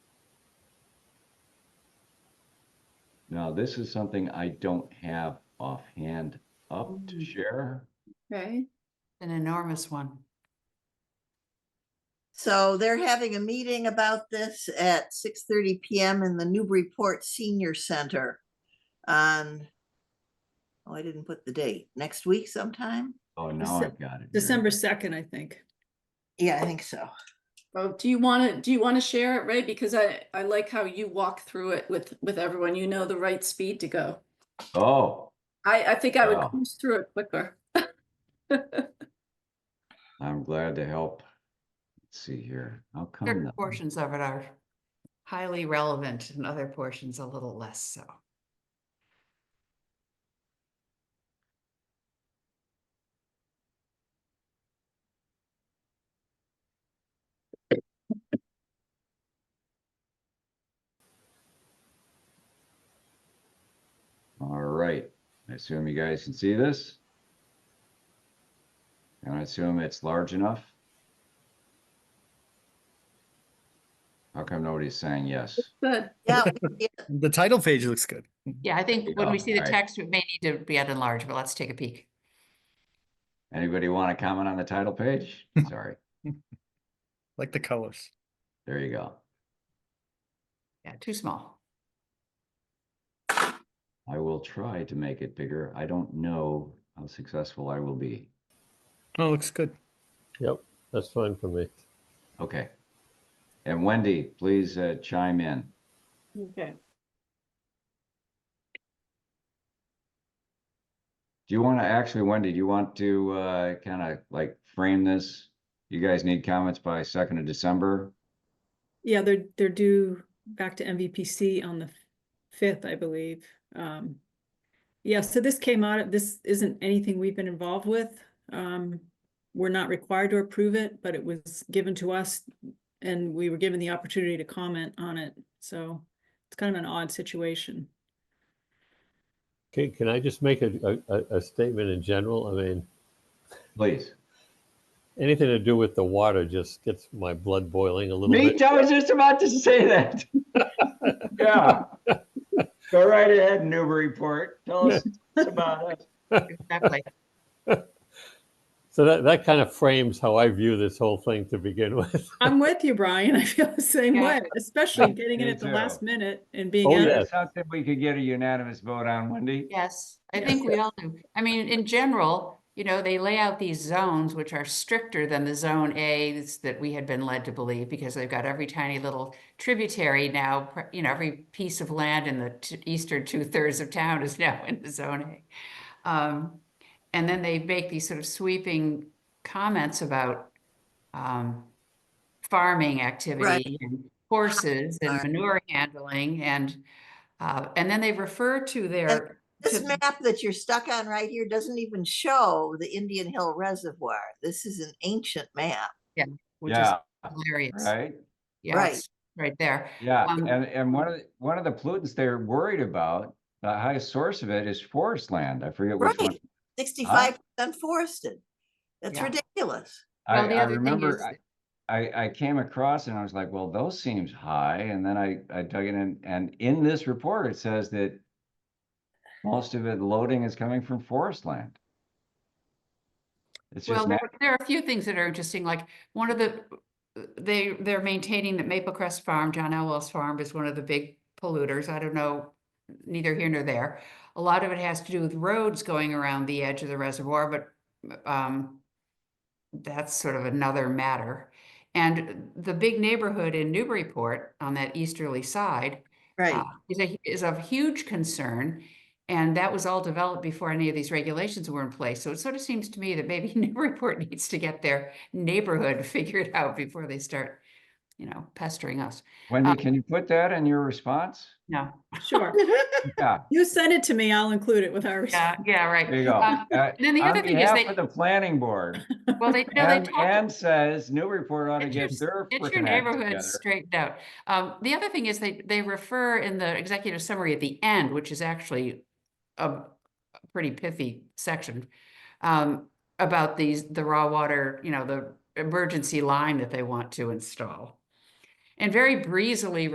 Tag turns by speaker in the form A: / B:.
A: Now, this is something I don't have offhand up to
B: Mm.
A: share.
B: Okay,
C: An enormous one.
B: so they're having a meeting about this at six thirty PM in the Newburyport Senior Center on, oh, I didn't put the date, next week sometime?
A: Oh, now
D: Dece-
A: I've got it. here.
D: December second, I think.
B: Yeah, I think so.
E: Well, do you want to, do you want to share it, Ray? Because I, I like how you walk through it with, with everyone. You know the right speed to go.
A: Oh,
E: I, I think I would
A: Wow.
E: cruise through it quicker.
A: I'm glad to help. Let's see here. How come?
C: Certain
A: that-
C: portions of it are highly relevant and other portions a little less so.
A: All right. I assume you guys can see this. And I assume it's large enough. How come nobody's saying yes?
E: Good.
B: Yeah, we-
F: The title page looks good.
C: Yeah, I think when we
A: Yeah,
C: see the
A: I-
C: text, it may need to be at enlarge, but let's take a peek.
A: Anybody want to comment on the title page? Sorry.
F: Like the colors.
A: There you go.
C: Yeah, too small.
A: I will try to make it bigger. I don't know how successful I will be.
F: Oh, looks good.
G: Yep, that's fine for me.
A: Okay. And Wendy, please uh, chime in.
E: Okay.
A: Do you want to actually, Wendy, do you want to uh, kind of like frame this? You guys need comments by second of December.
D: Yeah, they're, they're due back to MVPC on the fifth, I believe. Um, yeah, so this came out, of this isn't anything we've been involved with. Um, we're not required to approve it, but it was given to us and we were given the opportunity to comment on it. So it's kind of an odd situation.
G: Okay, can I just make a, a- a, a statement in general? I mean,
A: Please.
G: anything to do with the water just gets my blood boiling a little
A: Me
G: bit.
A: too. I was just about to say that. yeah. Go right ahead, Newburyport. Tell us about it.
C: Exactly.
G: So that, that kind of frames how I view this whole thing to begin with.
D: I'm with you, Brian. I feel the same
C: Yeah.
D: way, especially getting it
A: Me
D: at the
A: too.
D: last minute and being.
G: Oh,
D: out of
G: yeah.
A: That's something we could get a unanimous vote on, Wendy.
C: Yes, I
D: Yeah.
C: think we all do. I mean, in general, you know, they lay out these zones which are stricter than the zone A's that we had been led to believe because they've got every tiny little tributary now, pr- you know, every piece of land in the t- eastern two thirds of town is now in the zone A. Um, and then they make these sort of sweeping comments about um, farming activity and horses and
B: Right.
C: manure handling and uh, and then they refer to their
B: This
C: to-
B: map that you're stuck on right here doesn't even show the Indian Hill Reservoir. This is an ancient map.
C: which is
A: yeah.
C: hilarious.
A: Right.
C: Yeah,
B: Right.
C: it's right there.
A: Yeah.
C: Um,
A: and and one of the, one of the pollutants they're worried about, the highest source of it is forest land. I forget which one.
B: Right, sixty-five percent forested. That's
C: Yeah.
B: ridiculous.
A: I,
C: Well, the
A: I
C: other thing
A: remember
C: is-
A: I, I, I came across and I was like, well, those seems high. And then I, I dug it in and in this report, it says that most of it loading is coming from forest land. It's
C: Well,
A: just,
C: there,
A: nat-
C: were- there are a few things that are interesting, like one of the, they, they're maintaining that Maple Crest Farm, John Elwell's farm is one of the big polluters. I don't know, neither here nor there. A lot of it has to do with roads going around the edge of the reservoir, but, um, that's sort of another matter. And the big neighborhood in Newburyport on that easterly side
B: Right.
C: uh, is a, is of huge concern. And that was all developed before any of these regulations were in place. So it sort of seems to me that maybe Newburyport needs to get their neighborhood figured out before they start, you know, pestering us.
A: Wendy,
C: um,
A: can you put that in your response?
C: No,
D: Sure.
A: Yeah,
D: You send it to me, I'll include it with our.
C: yeah, yeah, right.
A: there you go.
C: Um,
A: Uh,
C: And then the
A: On
C: other thing is
A: behalf
C: they,
A: of the planning board,
C: well, they, no, they
A: and,
C: talk.
A: and says Newburyport ought to
C: Get your-
A: get their
C: Get your
A: frickin' act
C: neighborhood
A: together.
C: straightened out. Um, the other thing is they, they refer in the executive summary at the end, which is actually a a pretty pithy section, um, about these, the raw water, you know, the emergency line that they want to install. And very breezily